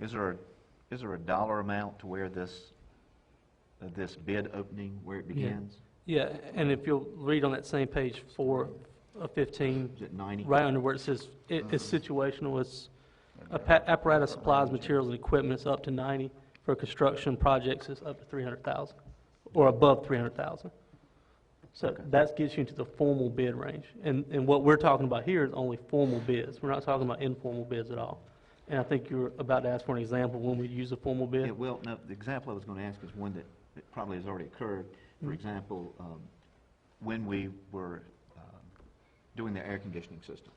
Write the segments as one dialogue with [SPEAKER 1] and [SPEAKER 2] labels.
[SPEAKER 1] Is there, a is there a dollar amount to where this, uh, this bid opening, where it begins?
[SPEAKER 2] Yeah, and if you'll read on that same page four of fifteen,
[SPEAKER 1] Is it 90?
[SPEAKER 2] right under where it says, it, it's situational, it's appa- apparatus, supplies, materials, and equipment, it's up to ninety. For construction projects, it's up to three hundred thousand, or above three hundred thousand. So
[SPEAKER 1] Okay.
[SPEAKER 2] that gets you into the formal bid range, and, and what we're talking about here is only formal bids, we're not talking about informal bids at all. And I think you were about to ask for an example when we use a formal
[SPEAKER 1] Yeah,
[SPEAKER 2] bid.
[SPEAKER 1] well, no, the example I was going to ask is one that that probably has already occurred. For
[SPEAKER 2] Mhm.
[SPEAKER 1] example, um, when we were um, doing the air conditioning system.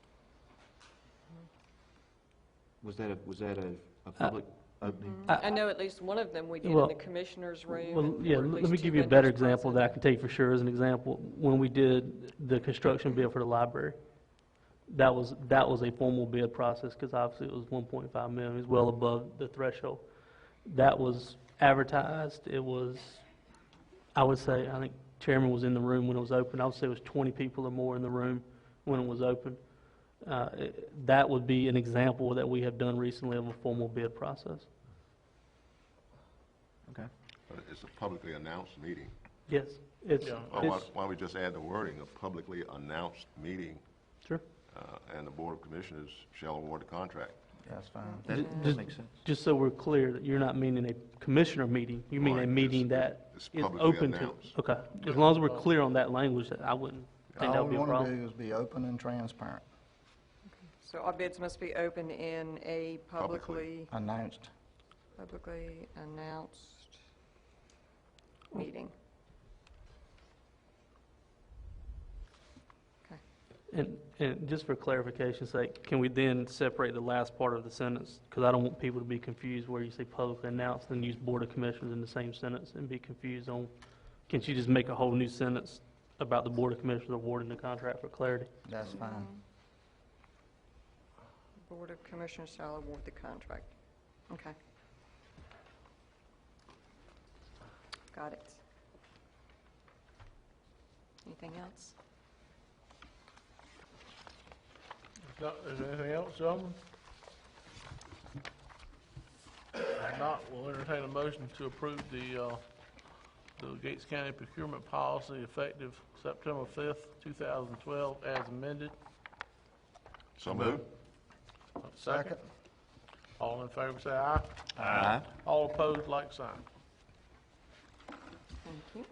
[SPEAKER 1] Was that a, was that a,
[SPEAKER 2] Uh,
[SPEAKER 1] a public opening?
[SPEAKER 2] I-
[SPEAKER 3] I know at least one of them we did
[SPEAKER 2] Well-
[SPEAKER 3] in the commissioner's room.
[SPEAKER 2] Well,
[SPEAKER 3] and
[SPEAKER 2] yeah,
[SPEAKER 3] there were
[SPEAKER 2] l-
[SPEAKER 3] at
[SPEAKER 2] let
[SPEAKER 3] least
[SPEAKER 2] me
[SPEAKER 3] two
[SPEAKER 2] give you a better
[SPEAKER 3] vendors
[SPEAKER 2] example that I
[SPEAKER 3] present.
[SPEAKER 2] can take for sure as an example. When we did the construction bid for the library, that was, that was a formal bid process, because obviously it was one point five million, it was well above the threshold. That was advertised, it was, I would say, I think chairman was in the room when it was open, I would say it was twenty people or more in the room when it was open. Uh, it- that would be an example that we have done recently of a formal bid process.
[SPEAKER 1] Okay.
[SPEAKER 4] But it's a publicly announced meeting.
[SPEAKER 2] Yes, it's,
[SPEAKER 4] Why,
[SPEAKER 2] it's,
[SPEAKER 4] why don't we just add the wording, a publicly announced meeting,
[SPEAKER 2] sure.
[SPEAKER 4] uh, and the Board of Commissioners shall award the contract?
[SPEAKER 5] That's fine.
[SPEAKER 1] That, that
[SPEAKER 2] Just-
[SPEAKER 1] makes sense.
[SPEAKER 2] Just so we're clear, that you're not meaning a commissioner meeting, you mean
[SPEAKER 4] Right,
[SPEAKER 2] a
[SPEAKER 4] it's-
[SPEAKER 2] meeting that
[SPEAKER 4] it's
[SPEAKER 2] is
[SPEAKER 4] publicly
[SPEAKER 2] open to.
[SPEAKER 4] announced.
[SPEAKER 2] Okay, as long as we're clear on that language, that I wouldn't think that
[SPEAKER 5] All
[SPEAKER 2] would be
[SPEAKER 5] we
[SPEAKER 2] a
[SPEAKER 5] want to
[SPEAKER 2] problem.
[SPEAKER 5] do is be open and transparent,
[SPEAKER 3] So all bids must be open in a publicly,
[SPEAKER 4] Publicly.
[SPEAKER 5] announced.
[SPEAKER 3] publicly announced meeting.
[SPEAKER 2] And, and just for clarification's sake, can we then separate the last part of the sentence? Because I don't want people to be confused where you say publicly announced and use Board of Commissioners in the same sentence and be confused on, can she just make a whole new sentence about the Board of Commissioners awarding the contract for clarity?
[SPEAKER 5] That's fine.
[SPEAKER 3] Mm-hmm.
[SPEAKER 2] Mm-hmm.
[SPEAKER 3] Board of Commissioners shall award the contract. Okay. Got it. Anything else?
[SPEAKER 6] No, Is there anything else, gentlemen? If not, we'll entertain a motion to approve the, uh, the Gates County procurement policy effective September fifth, two thousand twelve, as amended.
[SPEAKER 4] So moved?
[SPEAKER 6] Second. All in favor, say aye.
[SPEAKER 1] Aye.
[SPEAKER 6] All opposed, like sign.
[SPEAKER 3] Thank you.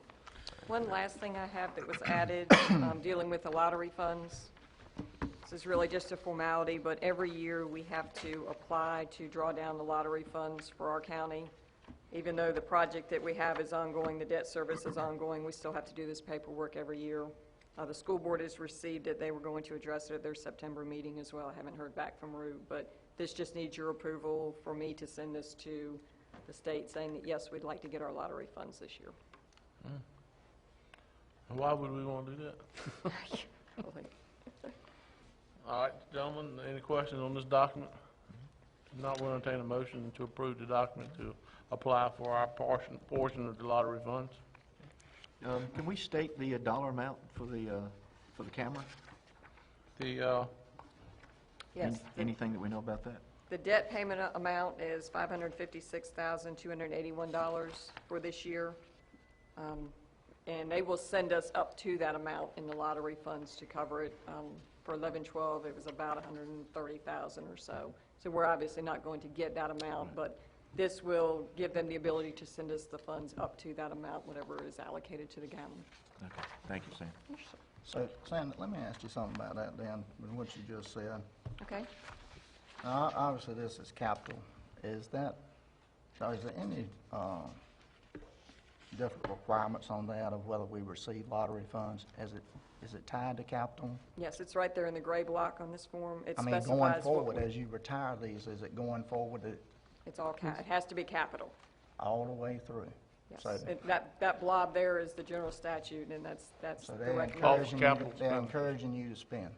[SPEAKER 3] One last thing I have that was added, um, dealing with the lottery funds. This is really just a formality, but every year we have to apply to draw down the lottery funds for our county. Even though the project that we have is ongoing, the debt service is ongoing, we still have to do this paperwork every year. Uh, The school board has received it, they were going to address it at their September meeting as well. I haven't heard back from Rue, but this just needs your approval for me to send this to the state saying that, yes, we'd like to get our lottery funds this year.
[SPEAKER 6] And Why would we wanna do that? All right, gentlemen, any questions on this document? If not, we'll entertain a motion to approve the document to apply for our portion, portion of the lottery funds.
[SPEAKER 1] Um, Can we state the uh, dollar amount for the, uh, for the camera?
[SPEAKER 6] The, uh,
[SPEAKER 1] Any-
[SPEAKER 3] Yes, the-
[SPEAKER 1] Anything that we know about that?
[SPEAKER 3] the debt payment a- amount is $556,281 for this year. Um, And they will send us up to that amount in the lottery funds to cover it. Um, For 1112, it was about 130,000 or so. So we're obviously not going to get that amount, but this will give them the ability to send us the funds up to that amount, whatever is allocated to the county.
[SPEAKER 1] Okay, thank you, Sam.
[SPEAKER 5] So, Sandy, let me ask you something about that then, with what you just said.
[SPEAKER 3] Okay?
[SPEAKER 5] Now, Obviously, this is capital. Is that, so is there any uh, different requirements on that of whether we receive lottery funds? Is it, is it tied to capital?
[SPEAKER 3] Yes, it's right there in the gray block on this form. It
[SPEAKER 5] I mean, going
[SPEAKER 3] specifies what
[SPEAKER 5] forward,
[SPEAKER 3] we-
[SPEAKER 5] as you retire these, is it going forward it-
[SPEAKER 3] It's all, ca- it has to be capital.
[SPEAKER 5] all the way through?
[SPEAKER 3] Yes.
[SPEAKER 5] So-
[SPEAKER 3] It- That, that blob there is the general statute, and that's, that's
[SPEAKER 5] So
[SPEAKER 3] the
[SPEAKER 5] they're
[SPEAKER 3] recommendation.
[SPEAKER 5] encouraging, you-
[SPEAKER 6] capital
[SPEAKER 5] they're
[SPEAKER 6] spending.
[SPEAKER 5] encouraging you to spend.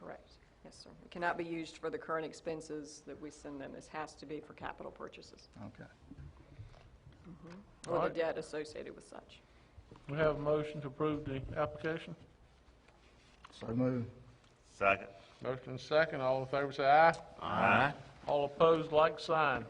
[SPEAKER 3] Correct. Yes, sir. It cannot be used for the current expenses that we send them. This has to be for capital purchases
[SPEAKER 5] Okay.
[SPEAKER 3] or the
[SPEAKER 6] Alright.
[SPEAKER 3] debt associated with such.
[SPEAKER 6] we have a motion to approve the application.
[SPEAKER 5] So move.
[SPEAKER 7] Second.
[SPEAKER 6] Motion second, all in favor say aye.
[SPEAKER 1] Aye.
[SPEAKER 6] All opposed, like sign.